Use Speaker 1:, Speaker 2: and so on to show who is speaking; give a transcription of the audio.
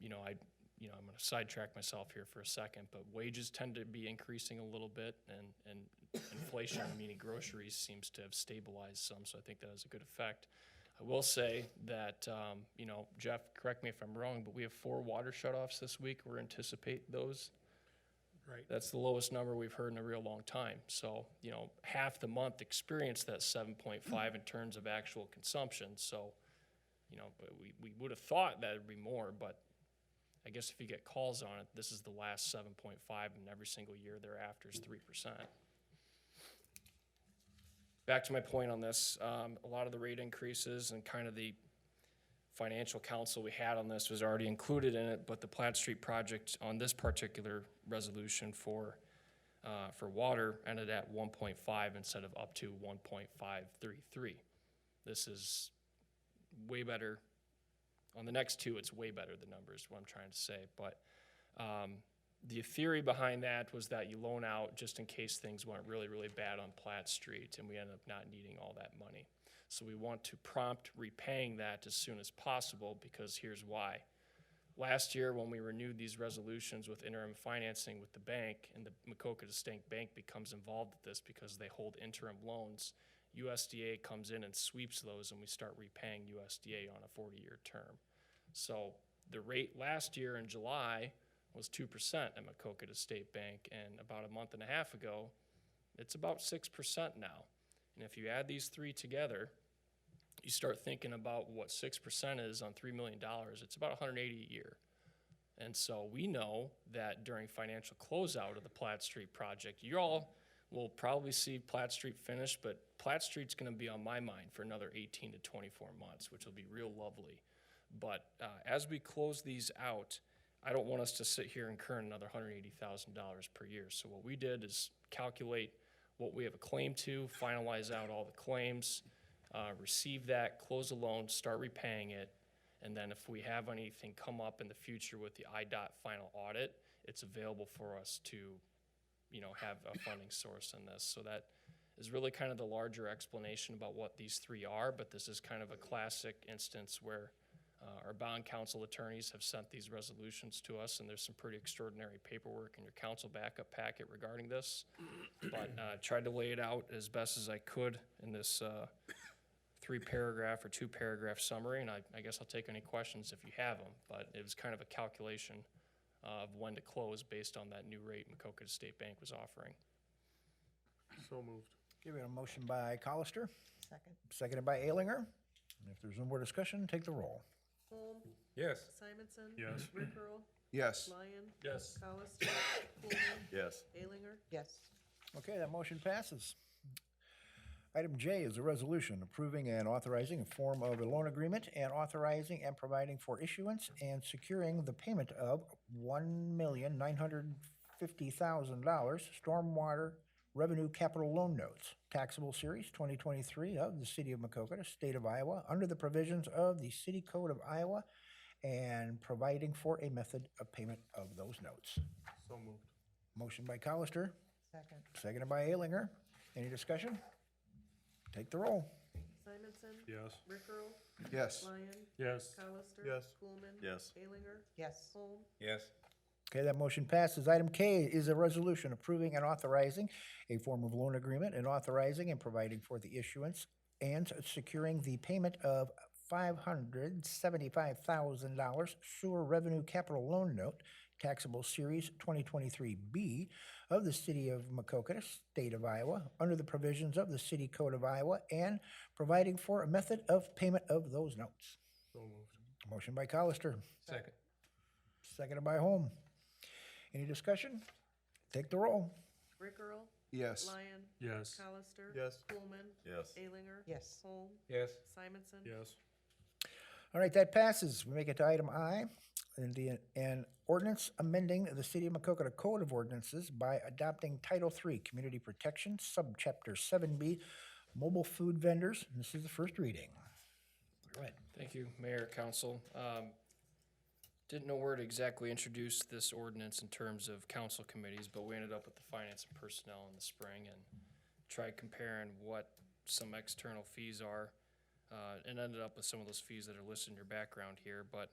Speaker 1: you know, I, you know, I'm gonna sidetrack myself here for a second, but wages tend to be increasing a little bit and, and inflation, meaning groceries, seems to have stabilized some, so I think that has a good effect. I will say that, um, you know, Jeff, correct me if I'm wrong, but we have four water shutoffs this week. We're anticipate those.
Speaker 2: Right.
Speaker 1: That's the lowest number we've heard in a real long time. So, you know, half the month experienced that seven point five in terms of actual consumption, so, you know, but we, we would have thought that'd be more, but I guess if you get calls on it, this is the last seven point five and every single year thereafter is three percent. Back to my point on this, um, a lot of the rate increases and kind of the financial counsel we had on this was already included in it, but the Platt Street project on this particular resolution for, uh, for water ended at one point five instead of up to one point five three three. This is way better. On the next two, it's way better, the numbers, what I'm trying to say. But um, the theory behind that was that you loan out just in case things went really, really bad on Platt Street and we ended up not needing all that money. So we want to prompt repaying that as soon as possible because here's why. Last year, when we renewed these resolutions with interim financing with the bank, and the Macoka Distinct Bank becomes involved with this because they hold interim loans, USDA comes in and sweeps those, and we start repaying USDA on a 40-year term. So the rate last year in July was 2% at Macoka State Bank, and about a month and a half ago, it's about 6% now. And if you add these three together, you start thinking about what 6% is on $3 million, it's about 180 a year. And so we know that during financial closeout of the Platt Street project, you all will probably see Platt Street finished, but Platt Street's gonna be on my mind for another eighteen to twenty-four months, which will be real lovely. But, uh, as we close these out, I don't want us to sit here and incur another hundred eighty thousand dollars per year. So what we did is calculate what we have a claim to, finalize out all the claims, uh, receive that, close a loan, start repaying it, and then if we have anything come up in the future with the IDOT final audit, it's available for us to, you know, have a funding source in this. So that is really kind of the larger explanation about what these three are, but this is kind of a classic instance where uh, our bond counsel attorneys have sent these resolutions to us, and there's some pretty extraordinary paperwork in your council backup packet regarding this. But uh, tried to lay it out as best as I could in this uh, three paragraph or two paragraph summary, and I, I guess I'll take any questions if you have them, but it was kind of a calculation of when to close based on that new rate Macoka State Bank was offering.
Speaker 2: So moved.
Speaker 3: Give it a motion by Colister,
Speaker 4: Second.
Speaker 3: seconded by Alinger. And if there's no more discussion, take the roll.
Speaker 4: Holm.
Speaker 5: Yes.
Speaker 4: Simonson.
Speaker 2: Yes.
Speaker 4: Rickrell.
Speaker 5: Yes.
Speaker 4: Lyon.
Speaker 1: Yes.
Speaker 4: Colister. Coolman.
Speaker 5: Yes.
Speaker 4: Alinger. Yes.
Speaker 3: Okay, that motion passes. Item J is a resolution approving and authorizing a form of a loan agreement and authorizing and providing for issuance and securing the payment of one million nine hundred fifty thousand dollars stormwater revenue capital loan notes, taxable series twenty twenty-three of the city of Macokota, state of Iowa, under the provisions of the city code of Iowa and providing for a method of payment of those notes.
Speaker 2: So moved.
Speaker 3: Motion by Colister,
Speaker 4: Second.
Speaker 3: Seconded by Alinger. Any discussion? Take the roll.
Speaker 4: Simonson.
Speaker 2: Yes.
Speaker 4: Rickrell.
Speaker 5: Yes.
Speaker 4: Lyon.
Speaker 2: Yes.
Speaker 4: Colister.
Speaker 2: Yes.
Speaker 4: Coolman.
Speaker 5: Yes.
Speaker 4: Alinger. Yes. Holm.
Speaker 5: Yes.
Speaker 3: Okay, that motion passes. Item K is a resolution approving and authorizing a form of loan agreement and authorizing and providing for the issuance and securing the payment of $575,000 sewer revenue capital loan note, taxable series 2023B of the city of Macokota, state of Iowa, under the provisions of the city code of Iowa and providing for a method of payment of those notes.
Speaker 2: So moved.
Speaker 3: Motion by Colister,
Speaker 5: Second.
Speaker 3: seconded by Holm. Any discussion? Take the roll.
Speaker 4: Rickrell.
Speaker 5: Yes.
Speaker 4: Lyon.
Speaker 2: Yes.
Speaker 4: Colister.
Speaker 2: Yes.
Speaker 4: Coolman.
Speaker 5: Yes.
Speaker 4: Alinger. Yes. Holm.
Speaker 5: Yes.
Speaker 4: Simonson.
Speaker 2: Yes.
Speaker 3: All right, that passes. We make it to item I, and the, an ordinance amending the City of Macocota Code of Ordinances by adopting Title III Community Protection, Subchapter 7B, Mobile Food Vendors. This is the first reading. Go ahead.
Speaker 1: Thank you, Mayor, Council. Um, Didn't know where to exactly introduce this ordinance in terms of council committees, but we ended up with the finance and personnel in the spring and tried comparing what some external fees are, uh, and ended up with some of those fees that are listed in your background here, but